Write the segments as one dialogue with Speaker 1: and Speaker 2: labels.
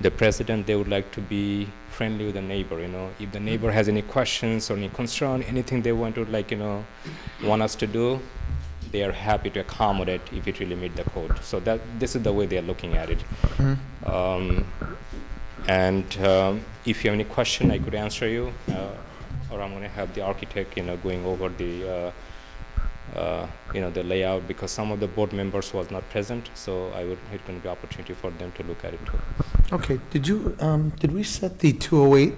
Speaker 1: the president, they would like to be friendly with the neighbor, you know. If the neighbor has any questions or any concern, anything they want to like, you know, want us to do, they are happy to accommodate if it really meet the code. So that, this is the way they are looking at it. Um, and um, if you have any question, I could answer you, uh, or I'm gonna have the architect, you know, going over the, uh, uh, you know, the layout, because some of the board members was not present, so I would, it gonna be opportunity for them to look at it too.
Speaker 2: Okay, did you, um, did we set the 208?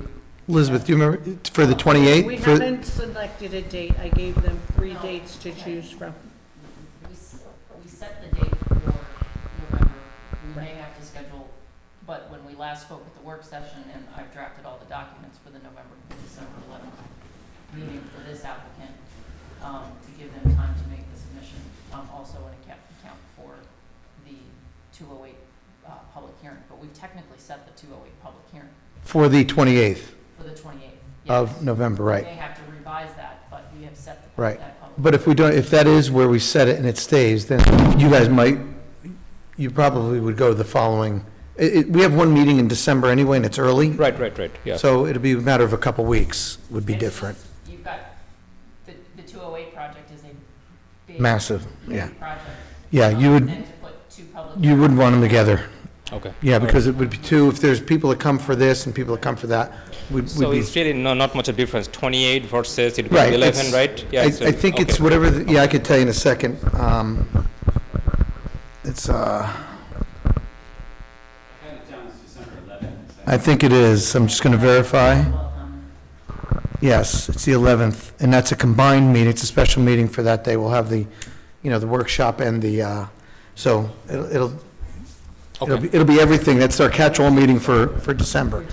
Speaker 2: Elizabeth, do you remember, for the 28?
Speaker 3: We
Speaker 2: For-
Speaker 3: haven't selected a date. I gave them three dates to choose from.
Speaker 4: We, s- we set the date for November, we may have to schedule, but when we last spoke at the work session, and I've drafted all the documents for the November, December eleventh meeting for this applicant, um, to give them time to make the submission, um, also in account, account for the two oh eight, uh, public hearing, but we've technically set the two oh eight public hearing
Speaker 2: For the 28th
Speaker 4: for the twenty-eighth.
Speaker 2: of November,
Speaker 4: We
Speaker 2: right.
Speaker 4: may have to revise that, but we have set the,
Speaker 2: Right.
Speaker 4: that public.
Speaker 2: But if we don't, if that is where we set it and it stays, then you guys might, you probably would go the following, it, it- we have one meeting in December anyway, and it's early,
Speaker 1: Right, right, right, yeah.
Speaker 2: so it'd be a matter of a couple weeks would be
Speaker 4: And it's
Speaker 2: different.
Speaker 4: just- You've got, the, the 208 project is a big.
Speaker 2: Massive, yeah.
Speaker 4: big Project.
Speaker 2: Yeah, you
Speaker 4: Um,
Speaker 2: would,
Speaker 4: And to put two public.
Speaker 2: you wouldn't want them together.
Speaker 1: Okay.
Speaker 2: Yeah,
Speaker 1: All right.
Speaker 2: because it would be two, if there's people that come for this and people that come for that, we'd
Speaker 1: So
Speaker 2: we'd be.
Speaker 1: it's really no, not much of difference, 28 versus it
Speaker 2: Right.
Speaker 1: was 11,
Speaker 2: it's-
Speaker 1: right? Yeah,
Speaker 2: I,
Speaker 1: so-
Speaker 2: I think it's
Speaker 1: okay.
Speaker 2: whatever, the- yeah, I could tell you in a second. Um, It's, uh,
Speaker 5: I had it down as December 11th. Is that-
Speaker 2: I think it is, I'm just gonna verify.
Speaker 4: Well, um,
Speaker 2: Yes, it's the 11th, and that's a combined meeting, it's a special meeting for that day. We'll have the, you know, the workshop and the, uh, so it'll, it'll, it'll
Speaker 1: Okay.
Speaker 2: be- it'll be everything. That's our catch-all meeting for, for December.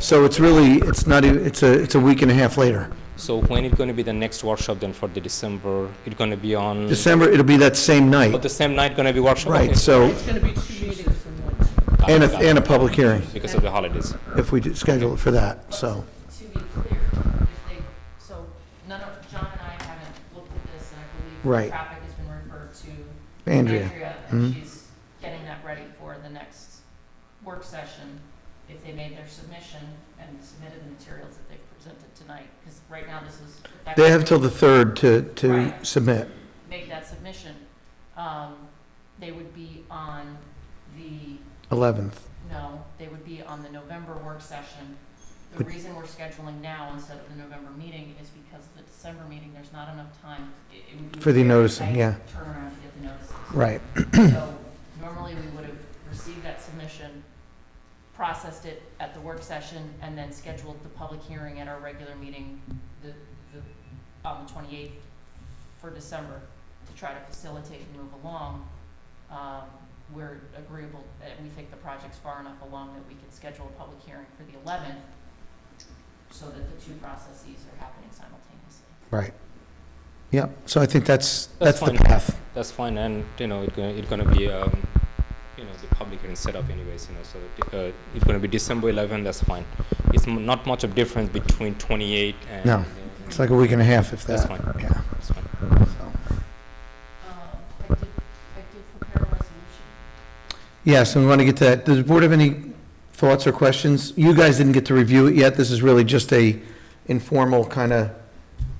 Speaker 2: So it's really, it's not, e- it's a, it's a week and a half later.
Speaker 1: So when is going to be the next workshop then for the December? It's going to be on,
Speaker 2: December, it'll be that same
Speaker 1: oh,
Speaker 2: night,
Speaker 1: the same night going to be workshop? Okay.
Speaker 2: right, so,
Speaker 3: It's going to be two meetings in one.
Speaker 1: Got it,
Speaker 2: and a,
Speaker 1: got it.
Speaker 2: and a public hearing,
Speaker 1: Because of the holidays.
Speaker 2: if we do schedule it for that, so.
Speaker 4: To be clear, if they, so none of, John and I haven't looked at this, and I believe.
Speaker 2: Right.
Speaker 4: Traffic has been referred to
Speaker 2: Andrea,
Speaker 4: Andrea, and
Speaker 2: Mhm.
Speaker 4: she's getting that ready for the next work session. If they made their submission and submitted the materials that they've presented tonight, because right now this is.
Speaker 2: they have till the 3rd to, to
Speaker 4: Right.
Speaker 2: submit.
Speaker 4: make that submission, um, they would be on the,
Speaker 2: 11th.
Speaker 4: no, they would be on the November work session. The
Speaker 2: But-
Speaker 4: reason we're scheduling now instead of the November meeting is because of the December meeting, there's not enough time. It- it would be
Speaker 2: For the
Speaker 4: a very
Speaker 2: noticing,
Speaker 4: tight
Speaker 2: yeah.
Speaker 4: Turnaround to get the notices.
Speaker 2: Right,
Speaker 4: So normally, we would have received that submission, processed it at the work session, and then scheduled the public hearing at our regular meeting, the, the, on the twenty-eighth for December, to try to facilitate and move along. Um, we're agreeable, that we think the project's far enough along that we can schedule a public hearing for the eleventh, so that the two processes are happening simultaneously.
Speaker 2: right. Yep, so I think that's, that's
Speaker 1: That's
Speaker 2: the
Speaker 1: fine.
Speaker 2: path.
Speaker 1: That's fine, and, you know, it's going, it's going to be, um, you know, the public hearing set up anyways, you know, so uh, it's going to be December 11, that's fine. It's m- not much of difference between 28 and.
Speaker 2: No, It's like a week and a half if
Speaker 1: That's
Speaker 2: that,
Speaker 1: fine.
Speaker 2: yeah.
Speaker 1: That's fine.
Speaker 2: so.
Speaker 4: Um, I did, I did prepare a resolution.
Speaker 2: Yes, and we want to get to that. Does the board have any thoughts or questions? You guys didn't get to review it yet. This is really just a informal kind of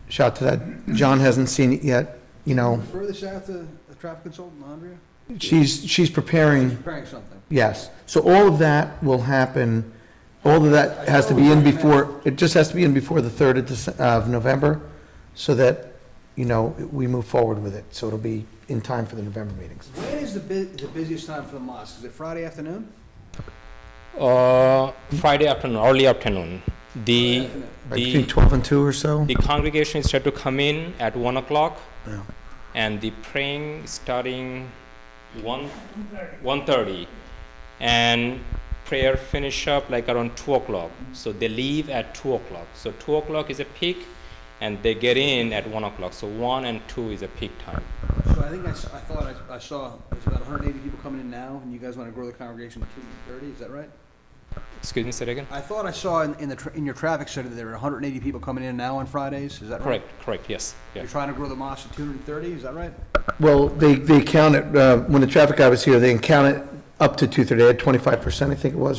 Speaker 2: shot to that. John hasn't seen it yet, you know.
Speaker 6: Refer this out to the traffic consultant, Andrea?
Speaker 2: She's, she's preparing,
Speaker 6: Preparing something.
Speaker 2: yes. So all of that will happen, all of that has to be in before, it just has to be in before the 3rd of Dece- of November so that, you know, we move forward with it. So it'll be in time for the November meetings.
Speaker 6: When is the bu- the busiest time for the mosque? Is it Friday afternoon?
Speaker 1: Uh, Friday afternoon, early afternoon. The,
Speaker 2: I
Speaker 1: the
Speaker 2: think 12 and 2 or so?
Speaker 1: The congregation is said to come in at one o'clock,
Speaker 2: Yeah.
Speaker 1: and the praying starting one, one thirty, and prayer finish up like around two o'clock. So they leave at two o'clock. So two o'clock is a peak, and they get in at one o'clock. So one and two is a peak time.
Speaker 6: So I think I, s- I thought I, I saw, there's about hundred and eighty people coming in now, and you guys wanna grow the congregation to two hundred and thirty, is that right?
Speaker 1: Excuse me, say that again.
Speaker 6: I thought I saw in, in the, tra- in your traffic center that there were hundred and eighty people coming in now on Fridays, is
Speaker 2: Uh-huh.
Speaker 6: that right?
Speaker 1: Correct, correct. Yes,
Speaker 6: You're
Speaker 1: yes.
Speaker 6: trying to grow the mosque to two hundred and thirty, is that right?
Speaker 2: Well, they, they count it, uh, when the traffic guy was here, they count it up to two-thirds, they had twenty-five percent, I think it was, or